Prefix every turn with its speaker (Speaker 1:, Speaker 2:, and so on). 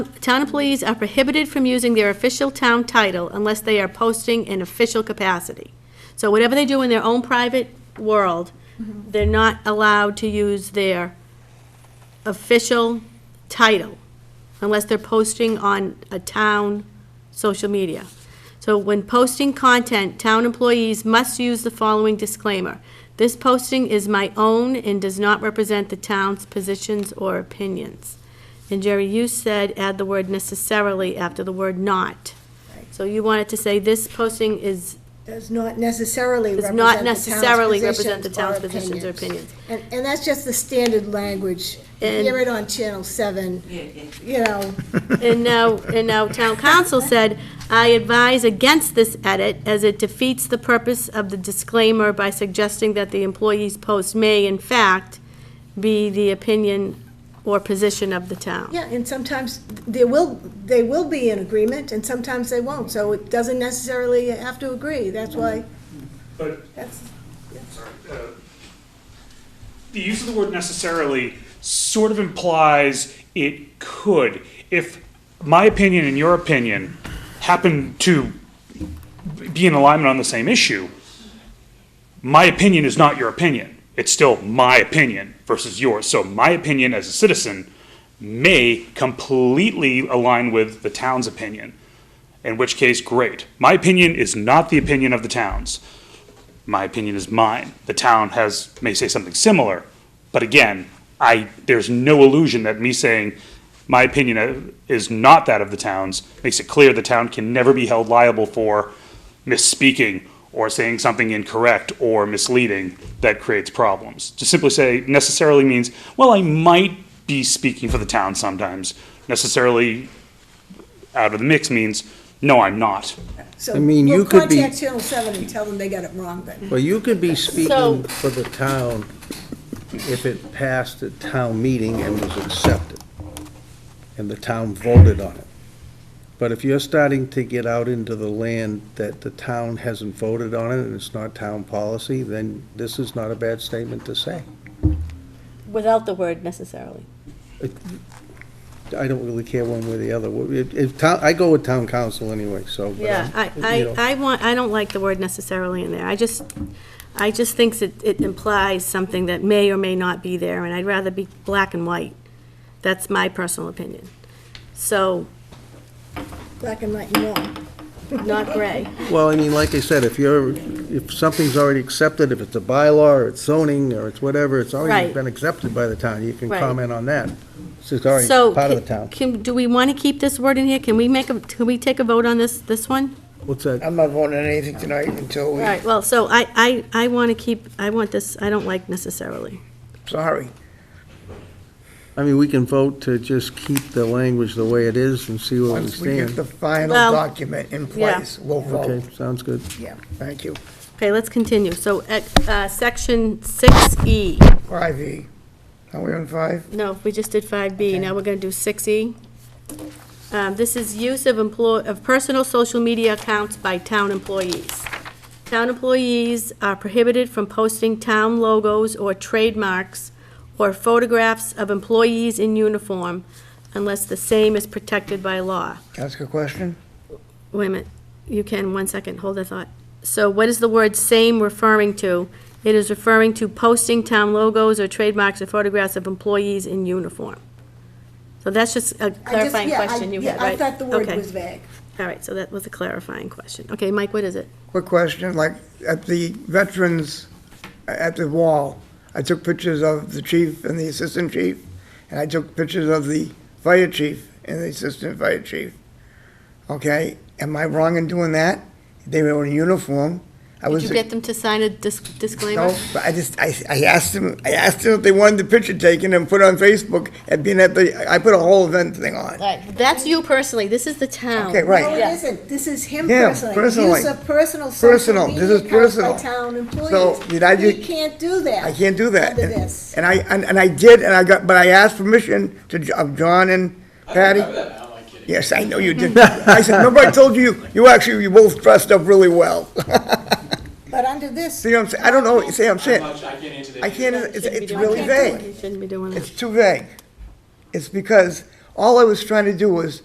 Speaker 1: Town employees are prohibited from using their official town title unless they are posting in official capacity. So whatever they do in their own private world, they're not allowed to use their official title unless they're posting on a town social media. So when posting content, town employees must use the following disclaimer. This posting is my own and does not represent the town's positions or opinions. And Jerry, you said add the word necessarily after the word not. So you wanted to say this posting is,
Speaker 2: Does not necessarily
Speaker 1: does
Speaker 2: represent
Speaker 1: not
Speaker 2: the town's
Speaker 1: necessarily
Speaker 2: positions
Speaker 1: represent the
Speaker 2: or
Speaker 1: town's positions or opinions.
Speaker 2: And, and that's just the standard language. You
Speaker 1: And-
Speaker 2: Hear it on Channel 7, you know,
Speaker 1: And now, and now town council said, I advise against this edit as it defeats the purpose of the disclaimer by suggesting that the employee's post may in fact be the opinion or position of the town.
Speaker 2: yeah, and sometimes there will, they will be in agreement, and sometimes they won't, so it doesn't necessarily have to agree, that's why,
Speaker 3: But,
Speaker 2: that's,
Speaker 3: sorry, uh, the use of the word necessarily sort of implies it could. If my opinion and your opinion happen to be in alignment on the same issue, my opinion is not your opinion. It's still my opinion versus yours. So my opinion as a citizen may completely align with the town's opinion, in which case, great. My opinion is not the opinion of the town's my opinion is mine. The town has, may say something similar, but again, I, there's no illusion that me saying my opinion of- is not that of the town's makes it clear the town can never be held liable for misspeaking or saying something incorrect or misleading that creates problems. To simply say necessarily means, well, I might be speaking for the town sometimes. Necessarily out of the mix means, no, I'm not.
Speaker 2: so.
Speaker 4: I mean, you could be-
Speaker 2: We'll contact Channel 7 and tell them they got it wrong, but
Speaker 4: Well, you could be
Speaker 1: So-
Speaker 4: speaking for the town if it passed at town meeting and was accepted, and the town voted on it. But if you're starting to get out into the land that the town hasn't voted on it, and it's not town policy, then this is not a bad statement to say.
Speaker 1: Without the word necessarily.
Speaker 4: I don't really care one way or the other. If, if town, I go with town council anyway, so. but,
Speaker 1: Yeah, I,
Speaker 4: you know.
Speaker 1: I, I want, I don't like the word necessarily in there. I just, I just thinks it, it implies something that may or may not be there, and I'd rather be black and white. That's my personal opinion. So,
Speaker 2: black and white and wrong.
Speaker 1: not gray.
Speaker 4: Well, I mean, like I said, if you're, if something is already accepted, if it's a bylaw, or it's zoning, or it's whatever, it's already
Speaker 1: Right.
Speaker 4: been accepted by the town, you can
Speaker 1: Right.
Speaker 4: comment on that. It's just already
Speaker 1: So,
Speaker 4: part of
Speaker 1: ca-
Speaker 4: the town.
Speaker 1: Can, do we want to keep this word in here? Can we make, a? can we take a vote on this, this one?
Speaker 4: What's that?
Speaker 5: I'm not voting on anything tonight until we,
Speaker 1: Right, well, so I, I, I want to keep, I want this, I don't like necessarily.
Speaker 5: sorry.
Speaker 4: I mean, we can vote to just keep the language the way it is and see where we
Speaker 5: Once we get the
Speaker 4: stand.
Speaker 5: final
Speaker 1: Well,
Speaker 5: document in
Speaker 1: yeah.
Speaker 5: place, we'll vote.
Speaker 4: Okay, sounds good.
Speaker 5: Yeah, thank you.
Speaker 1: Okay, let's continue. So, at, uh, section six E.
Speaker 5: Five E. Are we on five?
Speaker 1: No, we just did 5B, now we're going to do 6E. Um, This is use of employ, of personal social media accounts by town employees. Town employees are prohibited from posting town logos or trademarks or photographs of employees in uniform unless the same is protected by law.
Speaker 5: Can I ask a question?
Speaker 1: Wait a minute, you can, one second, hold that thought. So what is the word "same" referring to? It is referring to posting town logos or trademarks or photographs of employees in uniform. So that's just a
Speaker 2: I just-
Speaker 1: clarifying
Speaker 2: yeah, I-
Speaker 1: question you
Speaker 2: yeah,
Speaker 1: had, right?
Speaker 2: I thought the word
Speaker 1: Okay.
Speaker 2: was vague.
Speaker 1: All right, so that was a clarifying question. Okay, Mike, what is it?
Speaker 5: Quick question, like, at the veterans, at the wall, I took pictures of the chief and the assistant chief, and I took pictures of the fire chief and the assistant fire chief. Okay, am I wrong in doing that? They were in uniform. I
Speaker 1: Did
Speaker 5: was.
Speaker 1: you get them to sign a dis- disclaimer?
Speaker 5: No, but I just, I, I asked them, I asked them if they wanted the picture taken and put on Facebook and being at the, I put a whole event thing on.
Speaker 1: All right, that's you personally, this is the town.
Speaker 5: Okay, right.
Speaker 2: No, it isn't, this is him
Speaker 5: Yeah,
Speaker 2: personally.
Speaker 5: personally.
Speaker 2: Use of personal social
Speaker 5: Personal, this
Speaker 2: media
Speaker 5: is
Speaker 2: accounts by
Speaker 5: personal.
Speaker 2: town
Speaker 5: So,
Speaker 2: employees.
Speaker 5: did I
Speaker 2: You
Speaker 5: ju-
Speaker 2: can't do that.
Speaker 5: I can't do that.
Speaker 2: Under this.
Speaker 5: And I, and, and I did, and I got, but I asked permission to, Jo- of John and Patty. Yes, I know you did. I said, remember I told you, you actually, you both dressed up really well.
Speaker 2: But under this,
Speaker 5: See what I'm saying? I don't know, see what I'm saying?
Speaker 6: much I get into the
Speaker 5: I can't, it's,
Speaker 1: Shouldn't be
Speaker 5: it's
Speaker 1: doing
Speaker 5: really
Speaker 1: that.
Speaker 5: vague.
Speaker 1: You Shouldn't be doing that.
Speaker 5: It's too vague. It's because All I was trying to do was